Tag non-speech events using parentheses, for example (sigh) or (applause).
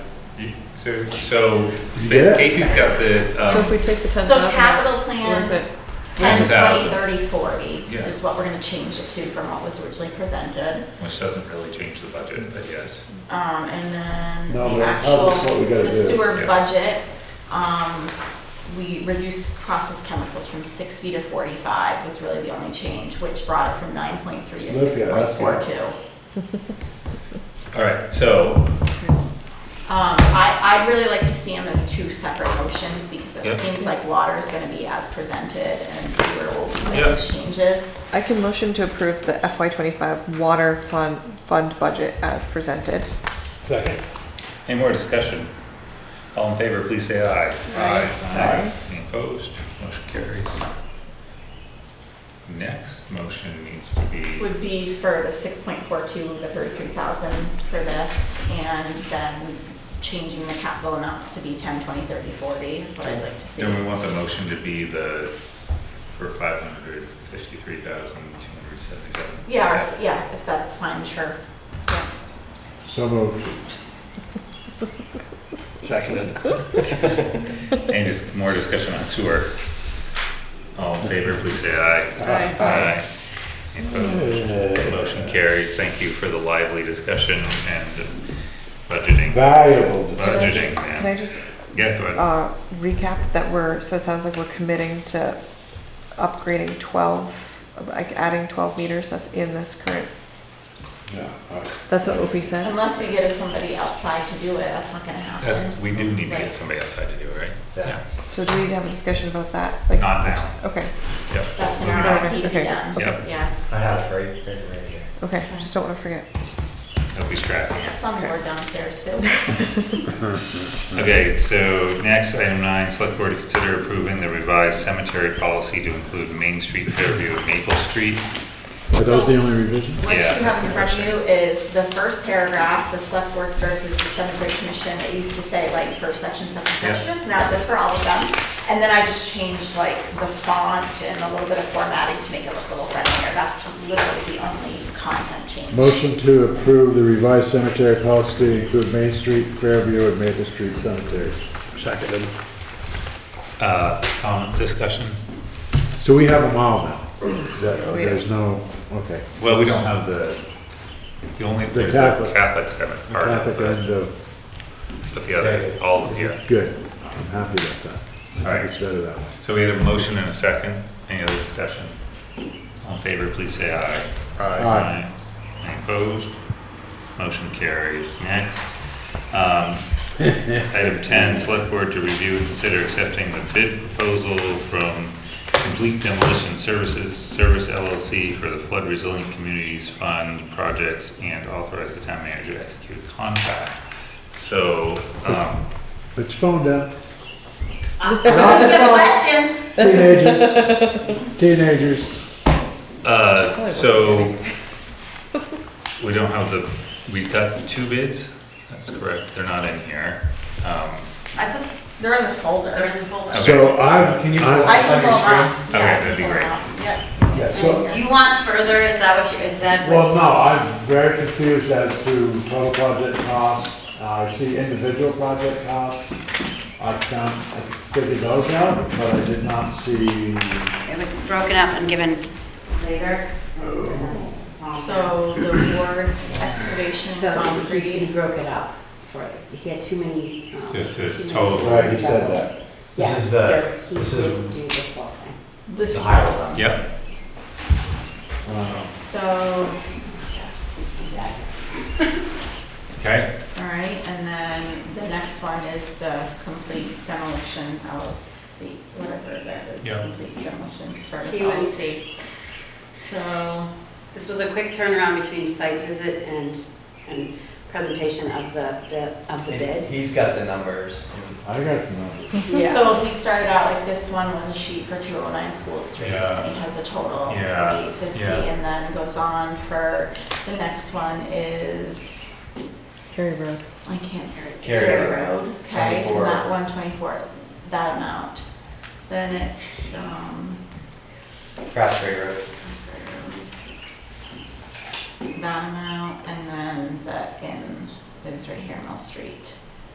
So, so Did you get it? Casey's got the, So if um, we take the ten So thousand out, capital where plan, is it? 10, 20, 10,000. 30, 40 Yeah. is what we're gonna change it to from what was originally presented. which doesn't really change the budget, but yes. Um, and then No, the but it tells us what actual, we gotta the do. sewer Yeah. budget, um, we reduced processed chemicals from sixty to forty-five was really the only change, which brought it from nine point three to Look six at point us, four two. All right, so, Um, I, I'd really like to see them as two separate motions because Yeah. it seems like water is gonna be as presented and sewer will make Yeah. those changes. I can motion to approve the FY twenty-five water fund, fund budget as presented. Second. any more discussion? All in favor, please say aye. Aye. Any Opposed, motion carries. Next motion needs to be, would be for the six point four two, the thirty-three thousand for this, and then changing the capital amounts to be ten, twenty, thirty, forty is what I'd like to see. and we want the motion to be the, for five hundred fifty-three thousand two hundred seventy-seven. Yeah, or s- yeah, if that's fine, sure. Yeah. So moved. Seconded. Any dis- more discussion on sewer? All in favor, please say aye. Aye. Any opposed? Uh, Motion carries. Thank you for the lively discussion and budgeting. Valuable. Can I Budgeting, just- yeah. Can I just, Yeah, go ahead. uh, recap that we're, so it sounds like we're committing to upgrading twelve, like adding twelve meters, that's in this current, Yeah, all right. that's what OP said? Unless we get somebody outside to do it, that's not gonna That's, happen. we do need to get somebody outside to do it, right? Yeah. So do we need to have a discussion about that? Like, Not now. just- Okay, Yep. That's an Not next, RFP to be okay. done, Yep. yeah. I have it right, written right here. okay, just don't wanna forget. Don't be strapped. It's on the board downstairs too. Okay, so next, item nine, select board to consider approving the revised cemetery policy to include Main Street Fairview and Maple Street. Are those the only revisions? What you Yeah, that's have in the front first of you is the first paragraph, the select board serves as the cemetery commission, it used to say like first section, second Yeah. section, it's now it says for all of them. And then I just changed like the font and a little bit of formatting to make it look a little friendlier, that's literally the only content change. Motion to approve the revised cemetery policy to include Main Street, Fairview, and Maple Street cemeteries. Seconded. Uh, comment, discussion? So we have them all now? That- There's no, okay. Well, we don't have the, the only, The there's the Catholic. Catholic cemetery part of Catholic it, end of, but the other, all of yeah. good. I'm happy about that. I think it's better that way. So we had a motion and a second. Any other discussion? All in favor, please say aye. Aye. Any opposed? Motion carries. Next. Um, (laughs) Item ten, select board to review and consider accepting the bid proposal from Complete Demolition Services, Service LLC for the Flood Resilient Communities Fund projects and authorize the town manager to execute a contract. So, um, Put your phone down. Questions? Teenagers, teenagers. Uh, so, (laughs) we don't have the, we've got two bids, that's correct, they're not in here. Um, I put, they're in the folder. They're in the folder. Okay. So I'm, Can you- I, I can pull them up. Okay, that'd be great. yeah, so, Yeah. You want further, is that what you, is that? what- well, no, I'm very confused as to total project costs. Uh, I see individual project costs. I can I figured those out, but I did not see, It was broken up and given later. So the wards, excavation, um, So he, he concrete, broke it up for, he had too many. um, This is too many total. right, he said that. Yeah, This is the- so he this is- didn't do the full thing. this is The all higher of them. Yep, Uh, So, okay, All right, and then the next one is the complete demolition LLC, whatever that is. Yeah. Complete demolition service He went- LLC. So, This was a quick turnaround between site visit and, and presentation of the, the- of the And bid. He's got the numbers. I got some. numbers. so he started out, like, this one was a sheet for two oh nine School Street. Yeah. He has a total of Uh, Yeah, forty-eight fifty, yeah. and then goes on for, the next one is, Carry Road. I can't. s- Carry Road, Okay, and 24. that one twenty-four, that amount. Then it's, um, Craftsbury Road. That amount, and then the in is right here, Mill Street.